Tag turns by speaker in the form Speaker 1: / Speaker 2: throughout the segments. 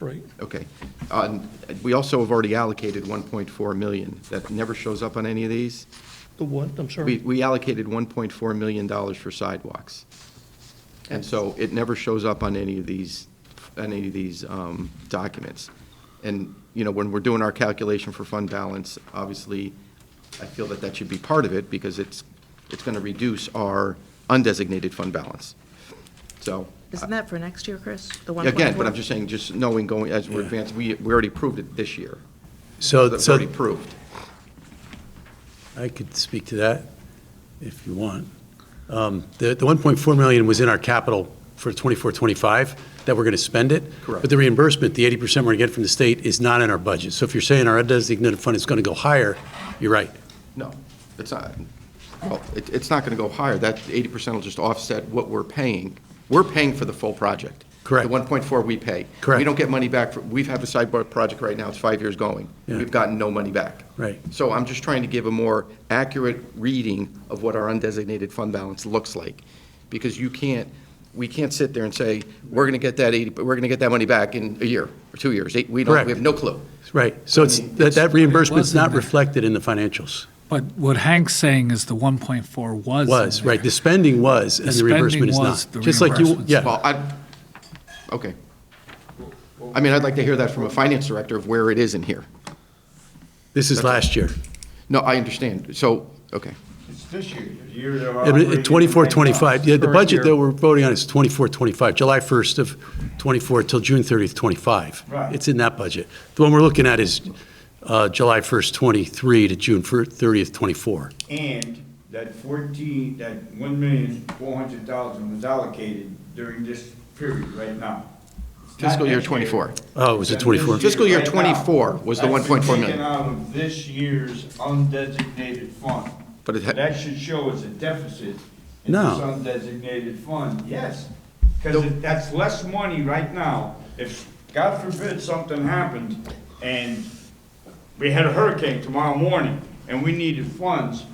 Speaker 1: right?
Speaker 2: Okay. Uh, and We also have already allocated 1.4 million. That never shows up on any of these.
Speaker 1: The what, I'm
Speaker 2: We
Speaker 1: sorry?
Speaker 2: we allocated 1.4 million dollars for sidewalks. And so it never shows up on any of these, on any of these um, documents. And, you know, when we're doing our calculation for fund balance, obviously, I feel that that should be part of it because it's, it's going to reduce our undesignated fund balance. So,
Speaker 3: Isn't that for next year, Chris? The one
Speaker 2: again, but I'm just saying, just knowing going, as we're advancing, we, we already proved it this year.
Speaker 4: So,
Speaker 2: That's
Speaker 4: so
Speaker 2: already proved.
Speaker 4: I could speak to that if you want. Um, The, the 1.4 million was in our capital for 24, 25, that we're going to spend it.
Speaker 2: Correct.
Speaker 4: But the reimbursement, the 80% we're going to get from the state is not in our budget. So if you're saying our undesignated fund is going to go higher, you're right.
Speaker 2: No, it's not, well, it, it's not gonna go higher, that eighty percent will just offset what we're paying. We're paying for the full project.
Speaker 4: Correct.
Speaker 2: The one point four we pay. We
Speaker 4: Correct.
Speaker 2: don't get money back, for- we've had the sidewalk project right now, it's five years going.
Speaker 4: Yeah.
Speaker 2: We've gotten no money back.
Speaker 4: Right.
Speaker 2: So I'm just trying to give a more accurate reading of what our undesignated fund balance looks like. Because you can't, we can't sit there and say, we're gonna get that eighty, we're gonna get that money back in a year, or two years, Eight- we don't,
Speaker 4: Correct.
Speaker 2: we have no clue.
Speaker 4: Right. So it's, that, that reimbursement's not reflected in the financials.
Speaker 5: But what Hank's saying is the 1.4 was. in
Speaker 4: Was,
Speaker 5: there.
Speaker 4: right. The spending was, and
Speaker 5: The
Speaker 4: the reimbursement is
Speaker 5: spending was,
Speaker 4: not.
Speaker 5: the
Speaker 4: Just like you,
Speaker 5: reimbursement's
Speaker 4: yeah,
Speaker 2: Well, I, okay. I mean, I'd like to hear that from a finance director of where it is in here.
Speaker 4: this is last year.
Speaker 2: No, I understand. So, okay.
Speaker 6: It's this year, the year they're operating.
Speaker 4: At 24, 25, yeah, the
Speaker 2: Current
Speaker 4: budget
Speaker 2: year.
Speaker 4: that we're voting on is 24, 25, July 1st of 24 till June 30th, 25.
Speaker 6: Right.
Speaker 4: It's in that budget. The one we're looking at is uh, July 1st, 23 to June fir- 30th, 24.
Speaker 6: And that fourteen, that one million, four hundred thousand was allocated during this period right now. It's not
Speaker 2: Fiscal year
Speaker 6: next
Speaker 2: 24.
Speaker 4: Oh, was it
Speaker 6: That's
Speaker 4: 24?
Speaker 6: this
Speaker 2: Fiscal year
Speaker 6: right now.
Speaker 2: 24 was the
Speaker 6: That's been
Speaker 2: 1.4 million.
Speaker 6: Taken out of this year's undesignated fund.
Speaker 2: But it ha-
Speaker 6: That should show as a deficit in this
Speaker 4: No.
Speaker 6: undesignated fund, yes. Because that's less money right now. If, God forbid, something happened and we had a hurricane tomorrow morning and we needed funds,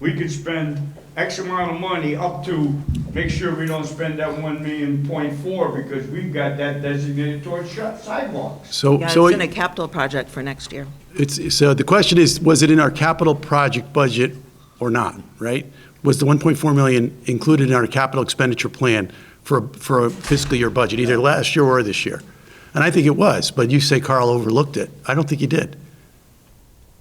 Speaker 6: we could spend X amount of money up to make sure we don't spend that one million point four because we've got that designated towards shi- sidewalks.
Speaker 4: So,
Speaker 3: Yeah,
Speaker 4: so
Speaker 3: it's in a
Speaker 4: it-
Speaker 3: capital project for next year.
Speaker 4: it's, so the question is, was it in our capital project budget or not, right? Was the 1.4 million included in our capital expenditure plan for, for a fiscal year budget, either last year or this year? And I think it was, but you say Carl overlooked it. I don't think he did.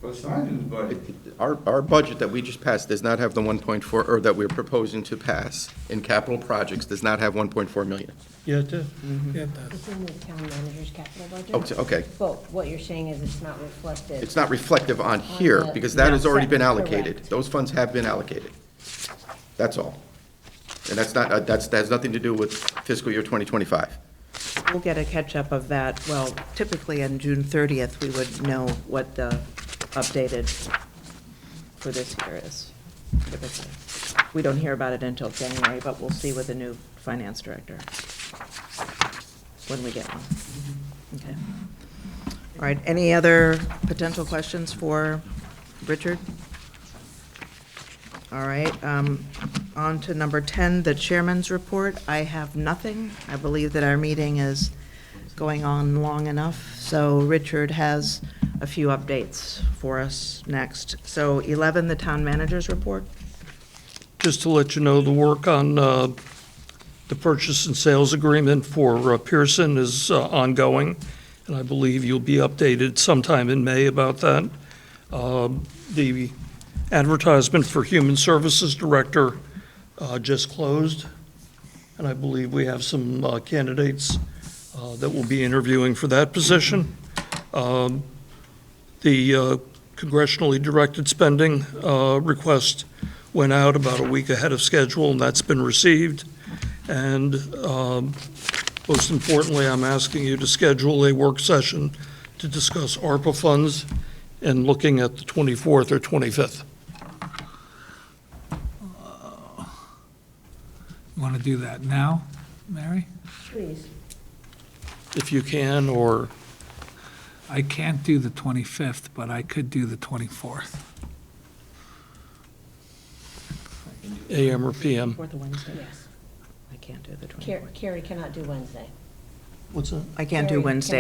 Speaker 6: But it's not in the budget.
Speaker 2: Our, our budget that we just passed does not have the 1.4, or that we're proposing to pass in capital projects, does not have 1.4 million.
Speaker 1: Yeah, it does. Yeah, it does.
Speaker 7: It's in the town manager's capital budget.
Speaker 2: Oh, it's- okay.
Speaker 7: But what you're saying is it's not reflected.
Speaker 2: It's not reflective on here, because that has already been allocated.
Speaker 7: Correct.
Speaker 2: Those funds have been allocated. That's all. And that's not, uh, that's, that has nothing to do with fiscal year 2025.
Speaker 3: We'll get a catch-up of that. Well, typically on June 30th, we would know what the updated for this year is. typically. We don't hear about it until January, but we'll see with the new finance director when we get one. Okay. All right, any other potential questions for Richard? All right, um, on to number 10, the chairman's report. I have nothing. I believe that our meeting is going on long enough, so Richard has a few updates for us next. So 11, the town manager's report.
Speaker 8: just to let you know, the work on uh, the purchase and sales agreement for uh, Pearson is uh, ongoing, and I believe you'll be updated sometime in May about that. Um, The advertisement for Human Services Director uh, just closed, and I believe we have some uh, candidates uh, that will be interviewing for that position. Um, The uh, congressionally directed spending uh, request went out about a week ahead of schedule, and that's been received. And um, most importantly, I'm asking you to schedule a work session to discuss ARPA funds and looking at the 24th or 25th.
Speaker 5: Want to do that now, Mary?
Speaker 7: Please.
Speaker 8: If you can, or
Speaker 5: I can't do the 25th, but I could do the 24th.
Speaker 8: AM or PM.
Speaker 3: Fourth of Wednesday?
Speaker 7: Yes.
Speaker 3: I can't do the 24th.
Speaker 7: Car- Carrie cannot do Wednesday.
Speaker 8: What's that?
Speaker 3: I can't do
Speaker 7: Carrie
Speaker 3: Wednesday.